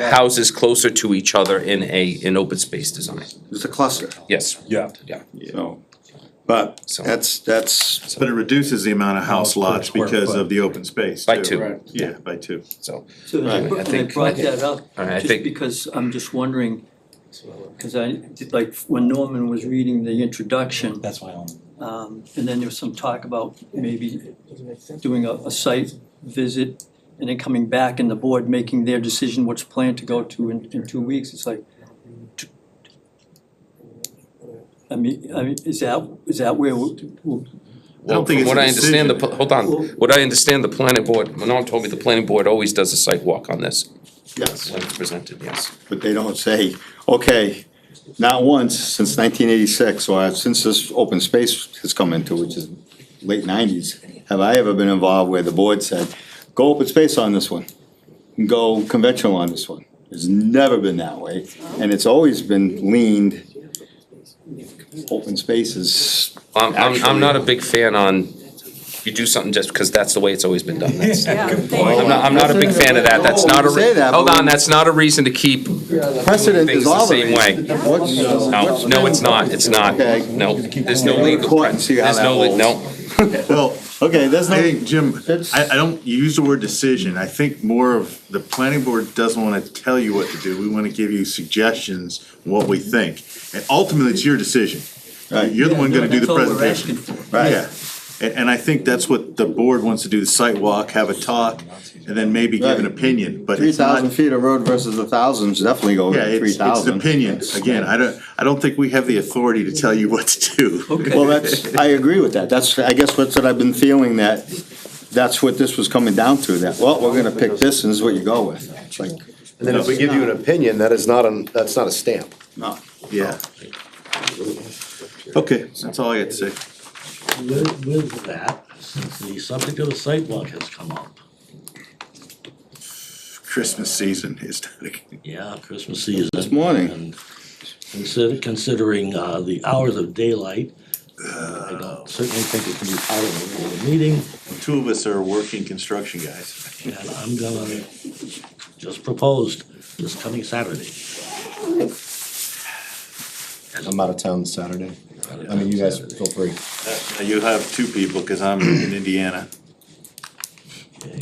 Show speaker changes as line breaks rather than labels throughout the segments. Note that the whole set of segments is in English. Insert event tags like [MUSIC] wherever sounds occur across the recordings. houses closer to each other in a, in open space design,
It's a cluster,
yes,
Yeah.
yeah.
so, but
So-
that's, that's,
But it reduces the amount of house
House per
lots
square
because
foot.
of the open space
By
too.
two.
Right.
Yeah, by two.
So,
So
Right.
they br-
I
they
think-
brought that up,
All right, I
just
think-
because I'm just wondering, because I, did, like, when Norman was reading the introduction,
That's why I'm.
um, and then there was some talk about maybe doing a, a site visit and then coming back and the board making their decision what's planned to go to in, in two weeks, it's like, t- I mean, I mean, is that, is that where, we- we-
well,
think
from
it's
what
a
I understand, the, pl-
decision.
hold on, what I understand, the planning board, Manon told me the planning board always does a site walk on this,
yes,
when it's presented, yes.
but they don't say, okay, not once since nineteen eighty-six, or since this open space has come into, which is late nineties, have I ever been involved where the board said, go open space on this one, and go conventional on this one. It's never been that way, and it's always been leaned, open spaces,
I'm, I'm, I'm not a big fan on, you do something just because that's the way it's always been done,
[LAUGHS]
that's,
Yeah,
I'm not,
thank
I'm not a big fan of that, that's not a,
No, we say
re-
that,
hold
but
on,
we-
that's not a reason to keep,
precedent
Things
is
the
all
same way. no, no, it's not, it's not,
Okay.
no, there's no legal,
Court and see how
there's
that
no, le-
holds.
no.
Well,
Okay, there's no.
I think, Jim,
That's-
I, I don't use the word decision, I think more of the planning board doesn't wanna tell you what to do, we wanna give you suggestions, what we think. And ultimately, it's your decision,
Right.
you're the one gonna do the
that's all we're
presentation.
asking for.
Right.
Yeah, and, and I think that's what the board wants to do, the site walk, have a talk, and then maybe give an
Right.
opinion, but
Three
it's not.
thousand feet of road versus a thousand is definitely go
Yeah,
over three
it's, it's an
thousand.
opinion, again, I don't, I don't think we have the authority to tell you [LAUGHS] what to do.
Okay.
Well, that's, I agree with that, that's, I guess what's what I've been feeling that, that's what this was coming down to, that, well, we're gonna pick this and this is what you go with. It's like,
And then if we give you an opinion, that is not an, that's not a stamp.
no.
Yeah. Okay, that's all I got to say.
With, with that, since the subject of the sidewalk has come up,
Christmas season is, [LAUGHS]
yeah, Christmas season.
This morning.
and Consider, considering, uh, the hours of daylight, I don't certainly think it can be part of a regular meeting,
two of us are working construction guys.
and I'm gonna just propose this coming Saturday.
I'm out of town Saturday. I mean, you guys feel free.
Uh, You have two people, cause I'm in Indiana.
Okay.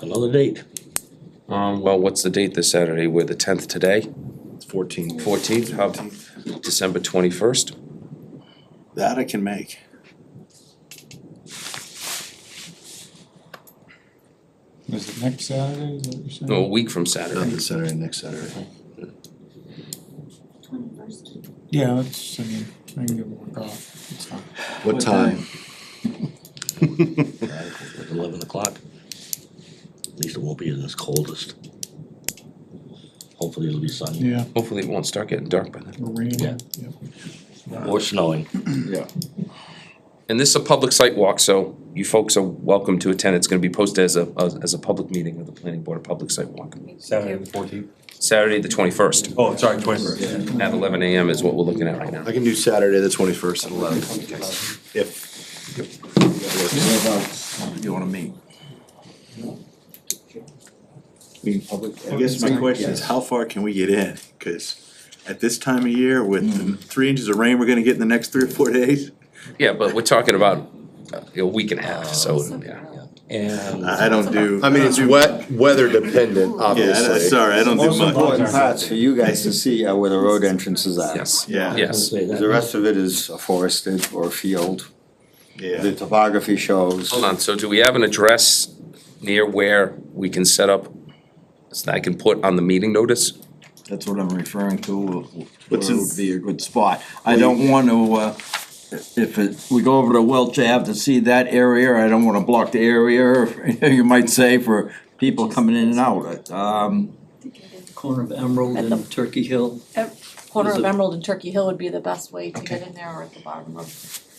Another date,
Um, well, what's the date this Saturday, we're the tenth today,
Fourteen.
fourteenth, how, December twenty-first?
That I can make.
Is it next Saturday, is that what you're saying?
No, a week from
Not
Saturday,
this Saturday, next Saturday.
Yeah, that's, I mean, I can give it a work off, it's not.
What time?
uh, at eleven o'clock. At least it won't be in this coldest. Hopefully it'll be sunny
Yeah,
hopefully it won't start getting dark by then.
or rain,
Yeah.
yeah.
or snowing.
And this is a public site walk, so you folks are welcome to attend. It's gonna be posted as a, as- as a public meeting of the planning board, a public site walk.
Saturday the fourteenth.
Saturday, the twenty-first,
Oh, sorry, twenty-first.
at eleven AM is what we're looking at right now.
I can do Saturday, the twenty-first at eleven. If.
You wanna meet?
I guess my question is, how far can we get in? Cause at this time of year, with
Hmm.
the three inches of rain we're gonna get in the next three or four days,
Yeah, but we're talking about uh, a week and a half, so, yeah.
Ah,
And
I I don't do.
I mean, it's wet, weather dependent,
Yeah, I-
obviously.
sorry, I don't do
Most
much.
important parts for you guys to see are where the road entrances are.
Yes,
Yeah.
yes.
Say that.
The rest of it is forested or field, the
Yeah,
topography shows.
Hold on, so do we have an address near where we can set up, that I can put on the meeting notice? [LAUGHS]
That's what I'm referring to,
What's
where
in-
would be a good spot. I don't wanna, uh, if it, we go over to Welch Ave to see that area, I don't wanna block the area, you might say, for people coming in and out. Um,
Corner of Emerald
At the-
and Turkey Hill,
Corner
Is
of
it-
Emerald and Turkey Hill would be the best way to get in there, or at the bottom of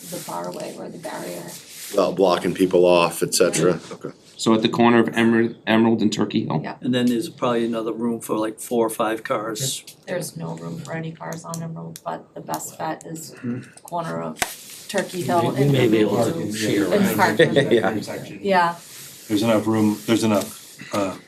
the barway or the barrier.
Without blocking people off, et cetera. Okay.
So at the corner of Emerald, Emerald and Turkey Hill?
Yeah.
and then there's probably another room for like four or five cars.
There's no room for any cars on Emerald, but the best bet is
Hmm.
corner of Turkey Hill
We
and
may
maybe
be able to share.
And park.
Yeah.
Yeah,
There's enough room, there's enough
uh,